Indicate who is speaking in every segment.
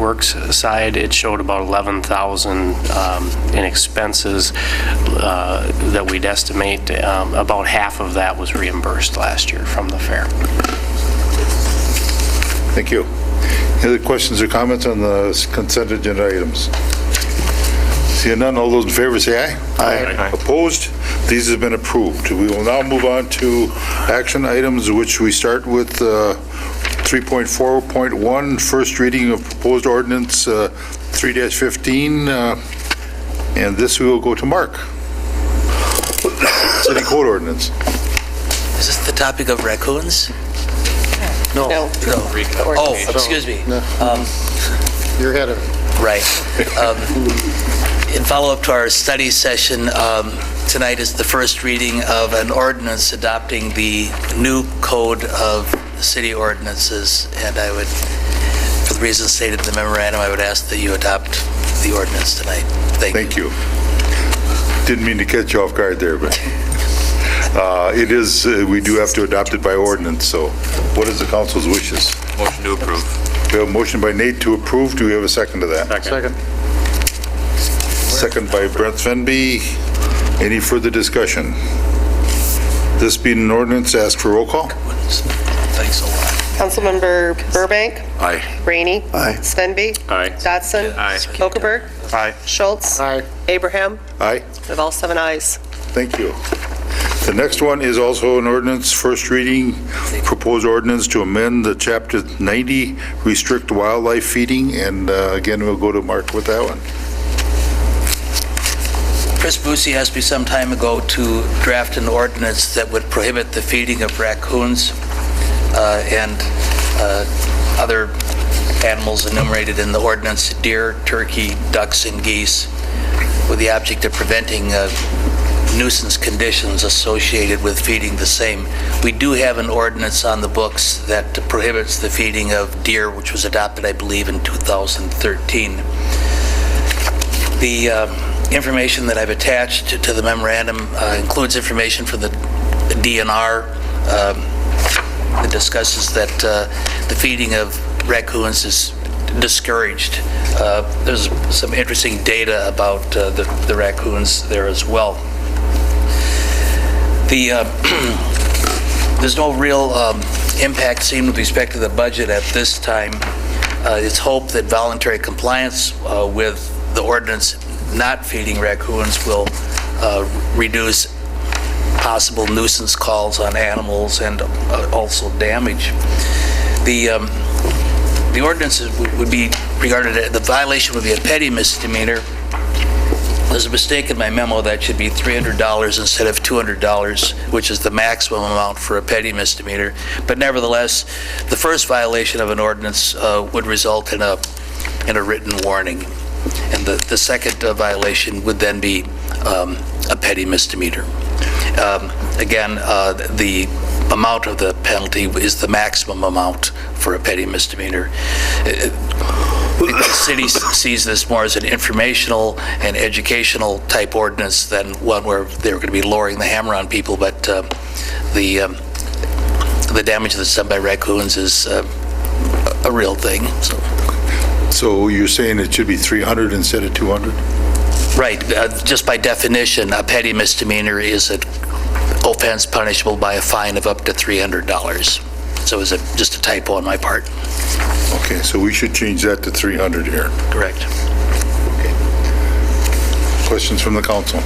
Speaker 1: Works side, it showed about 11,000 um, in expenses uh, that we'd estimate. Um, About half of that was reimbursed last year from the fair.
Speaker 2: Thank you. Any other questions or comments on the consent agenda items? Seeing none, all those in favor say aye.
Speaker 3: Aye.
Speaker 2: Opposed? These have been approved. We will now move on to action items, which we start with uh, 3.4.1, first reading of proposed ordinance uh, 3-15, uh, and this we will go to Mark. City code ordinance.
Speaker 4: Is this the topic of raccoons? No.
Speaker 3: No.
Speaker 4: Oh, excuse me. Um,
Speaker 3: You're ahead of it.
Speaker 4: Right. Um, In follow-up to our study session, um, tonight is the first reading of an ordinance adopting the new code of city ordinances, and I would, for the reasons stated in the memorandum, I would ask that you adopt the ordinance tonight. Thank you.
Speaker 2: Thank you. Didn't mean to catch you off guard there, but uh, it is, uh, we do have to adopt it by ordinance, so what is the council's wishes?
Speaker 5: Motion to approve.
Speaker 2: We have a motion by Nate to approve. Do we have a second to that?
Speaker 3: Second.
Speaker 2: Second by Brent Svenby. Any further discussion? This being an ordinance, ask for roll call.
Speaker 4: Thanks a lot.
Speaker 3: Councilmember Burbank.
Speaker 2: Aye.
Speaker 3: Rainey. Aye. Svenby.
Speaker 5: Aye.
Speaker 3: Dotson.
Speaker 5: Aye.
Speaker 3: Okaberg. Aye. Schultz. Aye. Abraham.
Speaker 2: Aye.
Speaker 3: We have all seven ayes.
Speaker 2: Thank you. The next one is also an ordinance, first reading, proposed ordinance to amend the Chapter 90, restrict wildlife feeding, and uh, again, we'll go to Mark with that one.
Speaker 4: Chris Boosie asked me some time ago to draft an ordinance that would prohibit the feeding of raccoons uh, and uh, other animals enumerated in the ordinance, deer, turkey, ducks, and geese, with the object of preventing uh, nuisance conditions associated with feeding the same. We do have an ordinance on the books that prohibits the feeding of deer, which was adopted, I believe, in 2013. The uh, information that I've attached to- to the memorandum uh, includes information from the DNR um, that discusses that uh, the feeding of raccoons is discouraged. Uh, There's some interesting data about uh, the the raccoons there as well. The uh, there's no real um, impact seen with respect to the budget at this time. Uh, It's hoped that voluntary compliance uh, with the ordinance not feeding raccoons will uh, reduce possible nuisance calls on animals and uh, also damage. The um, the ordinance is- would would be regarded, as- the violation would be a petty misdemeanor. There's a mistake in my memo, that should be $300 instead of $200, which is the maximum amount for a petty misdemeanor. But nevertheless, the first violation of an ordinance uh, would result in a, in a written warning. And the, the second uh, violation would then be um, a petty misdemeanor. Um, Again, uh, the amount of the penalty is the maximum amount for a petty misdemeanor. Uh, the city sees this more as an informational and educational type ordinance than one where they're going to be lowering the hammer on people, but uh, the, um, the damage that's done by raccoons is uh, a a real thing, so.
Speaker 2: So you're saying it should be 300 instead of 200?
Speaker 4: Right, uh, just by definition, a petty misdemeanor is an offense punishable by a fine of up to $300. So it was a- just a typo on my part.
Speaker 2: Okay, so we should change that to 300 here.
Speaker 4: Correct.
Speaker 2: Questions from the council?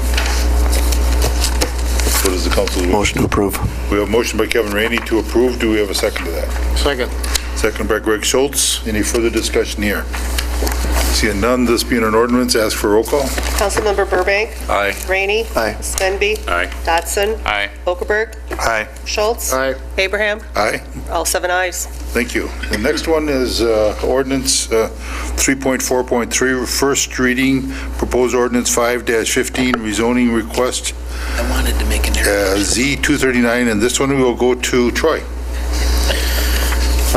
Speaker 2: What is the council's? Motion to approve. We have a motion by Kevin Rainey to approve. Do we have a second to that?
Speaker 3: Second.
Speaker 2: Second by Greg Schultz. Any further discussion here? Seeing none, this being an ordinance, ask for roll call.
Speaker 3: Councilmember Burbank.
Speaker 5: Aye.
Speaker 3: Rainey. Aye. Svenby.
Speaker 5: Aye.
Speaker 3: Dotson.
Speaker 5: Aye.
Speaker 3: Okaberg.
Speaker 5: Aye.
Speaker 3: Schultz. Aye. Abraham.
Speaker 2: Aye.
Speaker 3: All seven ayes.
Speaker 2: Thank you. The next one is uh, ordinance uh, 3.4.3, first reading, proposed ordinance 5-15, rezoning request
Speaker 4: I wanted to make an
Speaker 2: uh,
Speaker 4: error.
Speaker 2: Z239, and this one we will go to Troy.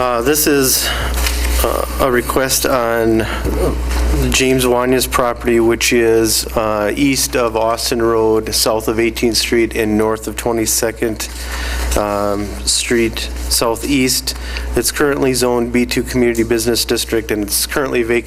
Speaker 6: Uh, This is uh, a request on uh, James Wanya's property, which is uh, east of Austin Road, south of 18th Street, and north of 22nd um, Street Southeast. It's currently zoned B2 Community Business District, and it's currently vacant